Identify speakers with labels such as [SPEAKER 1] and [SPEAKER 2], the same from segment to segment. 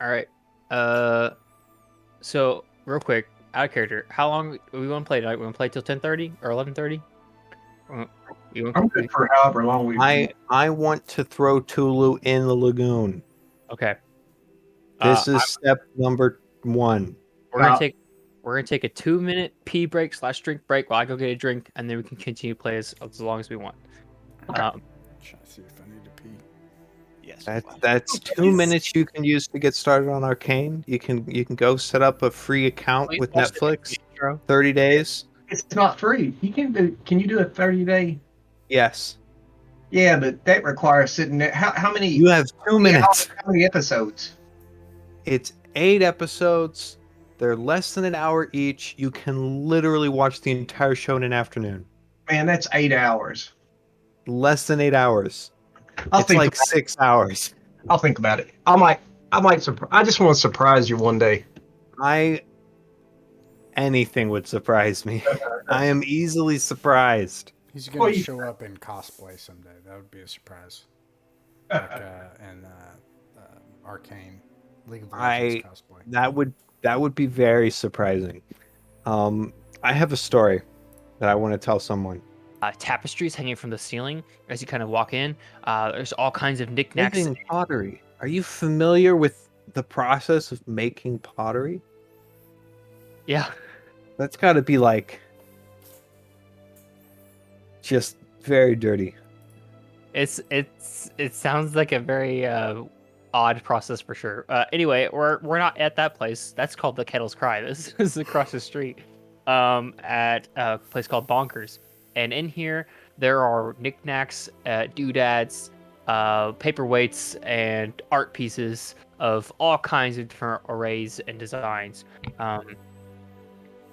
[SPEAKER 1] All right. Uh, so real quick, out of character. How long we want to play tonight? We want to play till ten thirty or eleven thirty? We want
[SPEAKER 2] I'm good for however long we.
[SPEAKER 3] I I want to throw Tulu in the lagoon.
[SPEAKER 1] okay. Uh,
[SPEAKER 3] This is step number one.
[SPEAKER 1] We're gonna
[SPEAKER 2] Uh,
[SPEAKER 1] take we're gonna take a two minute pee break slash drink break while I go get a drink, and then we can continue play as, as long as we want.
[SPEAKER 2] Okay.
[SPEAKER 1] Um,
[SPEAKER 4] Trying to see if I need to pee.
[SPEAKER 5] Yes.
[SPEAKER 3] That that's two minutes you can use to get started on Arcane. You can you can go set up a free account with
[SPEAKER 1] Please watch the
[SPEAKER 3] Netflix.
[SPEAKER 1] intro.
[SPEAKER 3] Thirty days.
[SPEAKER 2] It's not free. You can do. Can you do a thirty day?
[SPEAKER 3] Yes.
[SPEAKER 2] Yeah, but that requires sitting there. How how many?
[SPEAKER 3] You have two
[SPEAKER 2] yeah, how-
[SPEAKER 3] minutes.
[SPEAKER 2] how many episodes?
[SPEAKER 3] It's eight episodes. They're less than an hour each. You can literally watch the entire show in an afternoon.
[SPEAKER 2] Man, that's eight hours.
[SPEAKER 3] Less than eight hours.
[SPEAKER 2] I'll
[SPEAKER 3] it's
[SPEAKER 2] think.
[SPEAKER 3] like six hours.
[SPEAKER 2] I'll think about it. I might. I might. Surpri- I just want to surprise you one day.
[SPEAKER 3] I anything would surprise me. I am easily surprised.
[SPEAKER 4] He's gonna
[SPEAKER 2] Well, you-
[SPEAKER 4] show up in cosplay someday. That would be a surprise. Like uh, in uh, uh, Arcane League of Legends
[SPEAKER 3] I-
[SPEAKER 4] cosplay.
[SPEAKER 3] That would that would be very surprising. Um, I have a story that I want to tell someone.
[SPEAKER 1] uh, tapestries hanging from the ceiling as you kind of walk in. Uh, there's all kinds of knickknacks.
[SPEAKER 3] Making pottery. Are you familiar with the process of making pottery?
[SPEAKER 1] Yeah,
[SPEAKER 3] That's got to be like just very dirty.
[SPEAKER 1] it's it's it sounds like a very uh, odd process for sure. Uh, anyway, we're we're not at that place. That's called the Kettle's Cry. This is across the street, um, at a place called Bonkers. And in here, there are knickknacks, uh, doodads, uh, paperweights, and art pieces of all kinds of different arrays and designs. Um,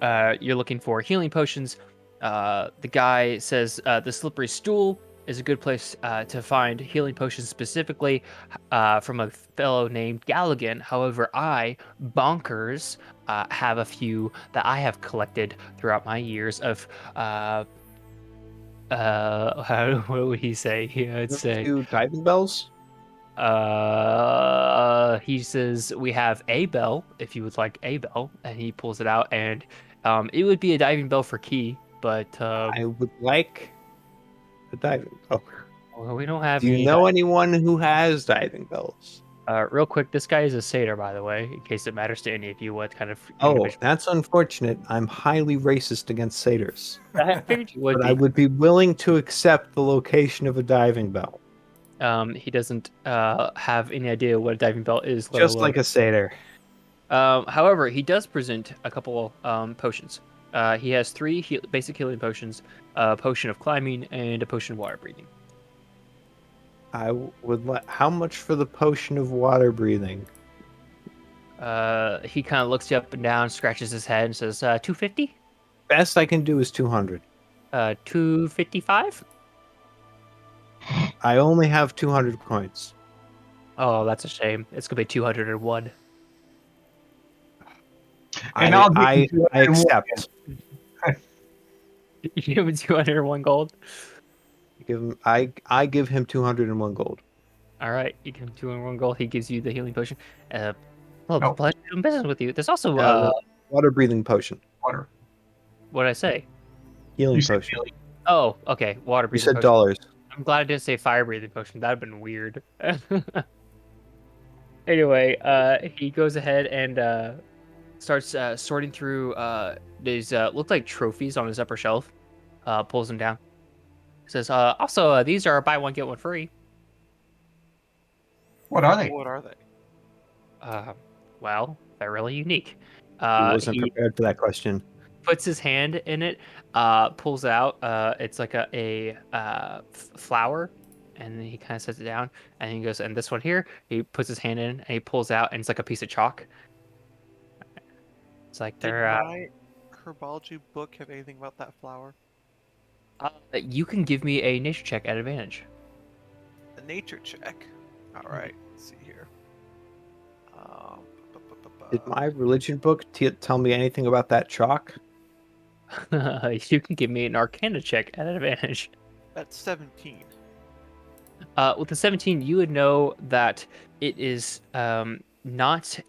[SPEAKER 1] uh, you're looking for healing potions. Uh, the guy says uh, the slippery stool is a good place uh, to find healing potions specifically uh, from a fellow named Galligan. However, I, Bonkers, uh, have a few that I have collected throughout my years of. Uh, uh, how, what would he say? uh, He would say
[SPEAKER 3] Two diving bells.
[SPEAKER 1] uh, he says we have a bell if you would like a bell, and he pulls it out, and um, it would be a diving bell for key, but um,
[SPEAKER 3] I would like a diving. Oh,
[SPEAKER 1] we don't have.
[SPEAKER 3] do you
[SPEAKER 1] any
[SPEAKER 3] know anyone who has diving bells?
[SPEAKER 1] Uh, real quick, this guy is a satyr, by the way, in case it matters to any of you. What kind of?
[SPEAKER 3] Oh,
[SPEAKER 1] individual-
[SPEAKER 3] that's unfortunate. I'm highly racist against satyrs,
[SPEAKER 1] I figured you would
[SPEAKER 3] but
[SPEAKER 1] be.
[SPEAKER 3] I would be willing to accept the location of a diving bell,
[SPEAKER 1] Um, he doesn't uh, have any idea what a diving bell is. let
[SPEAKER 3] just
[SPEAKER 1] alone-
[SPEAKER 3] like a satyr.
[SPEAKER 1] Um, however, he does present a couple um, potions. Uh, he has three heal- basic healing potions: a potion of climbing and a potion of water breathing.
[SPEAKER 3] I would like. How much for the potion of water breathing?
[SPEAKER 1] Uh, he kind of looks you up and down, scratches his head, and says, uh, 250?
[SPEAKER 3] Best I can do is two hundred.
[SPEAKER 1] Uh, 255?
[SPEAKER 3] I only have two hundred coins.
[SPEAKER 1] Oh, that's a shame. It's gonna be 201.
[SPEAKER 2] And
[SPEAKER 3] I,
[SPEAKER 2] I'll give
[SPEAKER 3] I,
[SPEAKER 2] you
[SPEAKER 3] I
[SPEAKER 2] 201.
[SPEAKER 3] accept.
[SPEAKER 1] You give him 201 gold?
[SPEAKER 3] Give him, I I give him two hundred and one gold.
[SPEAKER 1] All right, you give him 201 gold. He gives you the healing potion. Uh, well,
[SPEAKER 2] No.
[SPEAKER 1] pleasure doing business with you. There's also, uh,
[SPEAKER 3] Oh. Uh, Water breathing potion,
[SPEAKER 2] Water.
[SPEAKER 1] what'd I say?
[SPEAKER 3] healing
[SPEAKER 2] You said
[SPEAKER 3] potion.
[SPEAKER 2] Billy.
[SPEAKER 1] Oh, okay, water
[SPEAKER 3] You
[SPEAKER 1] breathing
[SPEAKER 3] said
[SPEAKER 1] potion.
[SPEAKER 3] dollars.
[SPEAKER 1] I'm glad I didn't say fire breathing potion. That'd have been weird. anyway, uh, he goes ahead and uh, starts uh, sorting through uh, these uh, look like trophies on his upper shelf. Uh, pulls them down. Says, uh, also uh, these are buy one get one free.
[SPEAKER 2] What are they?
[SPEAKER 5] What are they?
[SPEAKER 1] Uh, well, they're really unique.
[SPEAKER 3] I
[SPEAKER 1] Uh,
[SPEAKER 3] wasn't
[SPEAKER 1] he-
[SPEAKER 3] prepared for that question.
[SPEAKER 1] puts his hand in it, uh, pulls it out. Uh, it's like a, a uh, f- flower, and then he kind of sets it down. And he goes, and this one here, he puts his hand in and he pulls out, and it's like a piece of chalk. It's like
[SPEAKER 5] Did
[SPEAKER 1] they're. Uh,
[SPEAKER 5] my herbology book have anything about that flower?
[SPEAKER 1] uh, you can give me a nature check at advantage.
[SPEAKER 5] A nature check. All right. Let's see here. Um, bu- bu- bu- bu-
[SPEAKER 3] Did my religion book t- tell me anything about that chalk?
[SPEAKER 1] you can give me an Arcana check at advantage.
[SPEAKER 5] That's seventeen.
[SPEAKER 1] Uh, with the 17, you would know that it is um, not